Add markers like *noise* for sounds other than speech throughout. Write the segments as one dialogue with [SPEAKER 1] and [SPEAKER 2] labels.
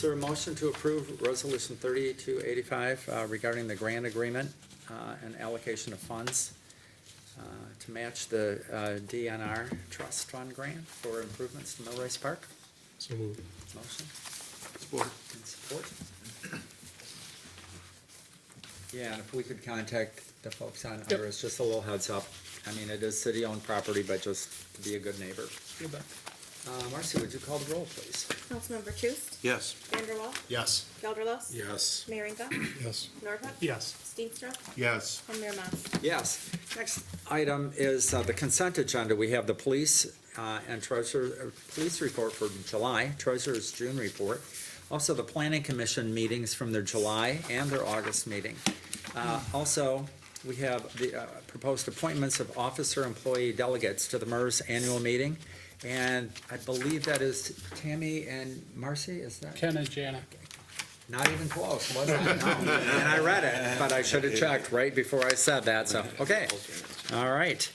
[SPEAKER 1] there a motion to approve Resolution 3285 uh, regarding the grant agreement uh, and allocation of funds uh, to match the uh, DNR Trust Fund grant for improvements to Millrace Park?
[SPEAKER 2] So moved.
[SPEAKER 1] Motion
[SPEAKER 3] Support.
[SPEAKER 1] and support. Yeah, and if we could contact the folks on Iris, just a little heads up. I mean, it is city-owned property, but just to be a good neighbor. Uh, Marcy, would you call the roll, please?
[SPEAKER 4] Councilmember Truist,
[SPEAKER 3] Yes.
[SPEAKER 4] Vanderwall,
[SPEAKER 3] Yes.
[SPEAKER 4] Gelderlos.
[SPEAKER 3] Yes. *clears throat*
[SPEAKER 4] Merringa,
[SPEAKER 2] Yes.
[SPEAKER 4] Nordhook.
[SPEAKER 2] Yes.
[SPEAKER 4] Steenstra,
[SPEAKER 3] Yes.
[SPEAKER 4] and Mayor Mas.
[SPEAKER 1] Yes. Next item is uh, the consent agenda. We have the police uh, and treasurer, uh, police report for July, treasurer's June report. Also, the planning commission meetings from their July and their August meeting. Uh, Also, we have the uh, proposed appointments of officer employee delegates to the MERS annual meeting. And I believe that is Tammy and Marcy, is that?
[SPEAKER 2] Ken and Janet.
[SPEAKER 1] Not even close, was it? No. And I read it, but I should have checked right before I said that, so, okay. All right.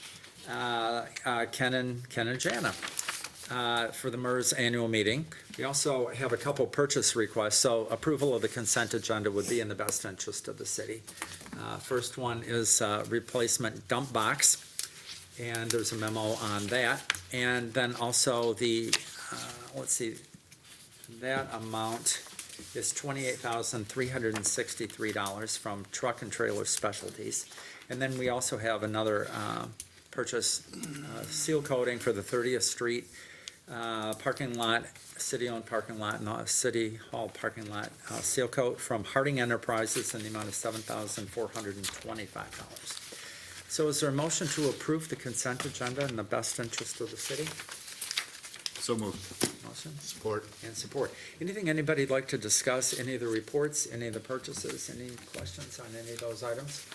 [SPEAKER 1] Uh, uh, Ken and, Ken and Jana uh, for the MERS annual meeting. We also have a couple purchase requests, so approval of the consent agenda would be in the best interest of the city. Uh, First one is uh, replacement dump box, and there's a memo on that. And then also the, uh, let's see, that amount is twenty-eight thousand, three hundred and sixty-three dollars from Truck and Trailer Specialties. And then we also have another, um, purchase, uh, seal coating for the Thirtieth Street, uh, parking lot, city-owned parking lot, and the City Hall parking lot, uh, seal coat from Harding Enterprises in the amount of seven thousand, four hundred and twenty-five dollars. So is there a motion to approve the consent agenda in the best interest of the city?
[SPEAKER 3] So moved.
[SPEAKER 1] Motion?
[SPEAKER 3] Support.
[SPEAKER 1] and support. Anything anybody'd like to discuss, any of the reports, any of the purchases, any questions on any of those items?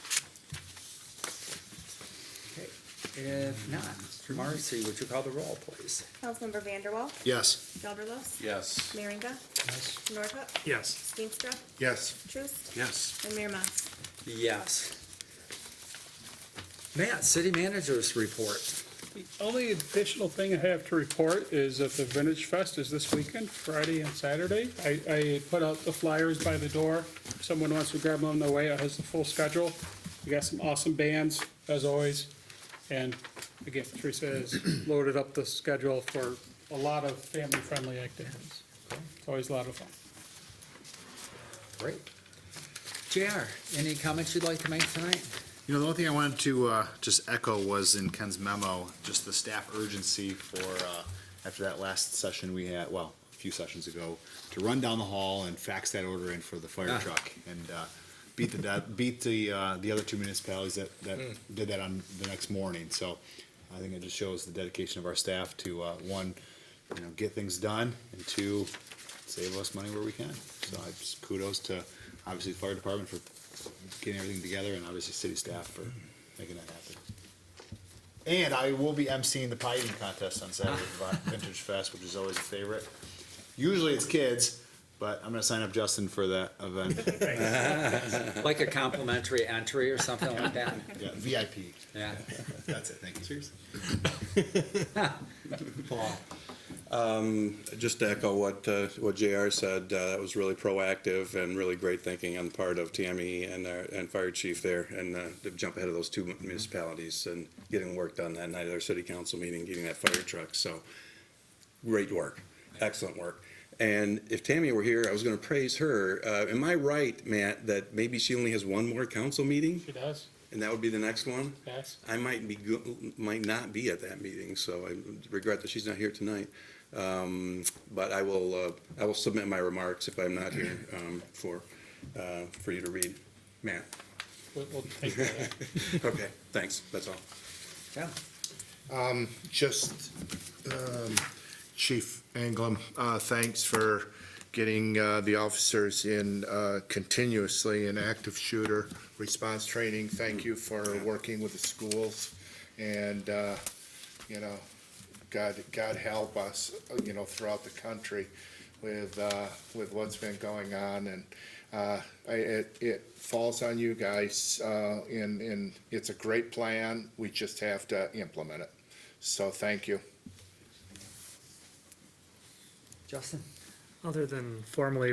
[SPEAKER 1] Okay, If not, Marcy, would you call the roll, please?
[SPEAKER 4] Councilmember Vanderwall,
[SPEAKER 3] Yes.
[SPEAKER 4] Gelderlos,
[SPEAKER 3] Yes.
[SPEAKER 4] Merringa, Nordhook,
[SPEAKER 2] Yes.
[SPEAKER 4] Steenstra,
[SPEAKER 3] Yes.
[SPEAKER 4] Truist,
[SPEAKER 3] Yes.
[SPEAKER 4] and Mayor Mas.
[SPEAKER 1] Yes. Matt, city managers report.
[SPEAKER 2] The only additional thing I have to report is that the Vintage Fest is this weekend, Friday and Saturday. I, I put out the flyers by the door. If Someone wants to grab them on the way. It has the full schedule. We got some awesome bands, as always. And again, Teresa *clears throat* has loaded up the schedule for a lot of family-friendly activities. It's always a lot of fun.
[SPEAKER 1] Great. JR, any comments you'd like to make tonight?
[SPEAKER 5] You know, the only thing I wanted to uh, just echo was in Ken's memo, just the staff urgency for, uh, after that last session we had, well, a few sessions ago, to run down the hall and fax that order in for the
[SPEAKER 1] Ah.
[SPEAKER 5] fire truck and uh, beat the, dead- beat the, uh, the other two municipalities that, that did that on the next morning. So I think it just shows the dedication of our staff to, uh, one, you know, get things done, and two, save us money where we can. So I just kudos to, obviously, the fire department for getting everything together, and obviously city staff for making that happen. And I will be emceeing the pie eating contest on Saturday at Vintage Fest, which is always a favorite. Usually it's kids, but I'm gonna sign up Justin for that event,
[SPEAKER 1] Like a complimentary entry or something like *laughs* that?
[SPEAKER 5] yeah, VIP,
[SPEAKER 1] Yeah.
[SPEAKER 5] that's it, thank you.
[SPEAKER 1] Paul?
[SPEAKER 6] just to echo what, uh, what JR said, uh, that was really proactive and really great thinking on the part of Tammy and, our- and Fire Chief there, and, uh, to jump ahead of those two municipalities and getting work done that night at our city council meeting, getting that fire truck, so, great work, excellent work. And if Tammy were here, I was gonna praise her, uh, am I right, Matt, that maybe she only has one more council meeting,
[SPEAKER 2] She does,
[SPEAKER 6] and that would be the next one?
[SPEAKER 2] yes.
[SPEAKER 6] I might be, go- might not be at that meeting, so I regret that she's not here tonight. Um, But I will, uh, I will submit my remarks if I'm not here um, for, uh, for you to read. Matt?
[SPEAKER 2] We'll, we'll take that. up.
[SPEAKER 6] Okay, thanks, that's all.
[SPEAKER 1] Yeah.
[SPEAKER 3] Just, um, Chief Anglem, uh, thanks for getting, uh, the officers in, uh, continuously in active shooter response training. Thank you for working with the schools and, uh, you know, God, God help us, uh, you know, throughout the country with, uh, with what's been going on and, uh, I, it, it falls on you guys, uh, and, and it's a great plan. We just have to implement it. So thank you.
[SPEAKER 1] Justin?
[SPEAKER 7] Other than formally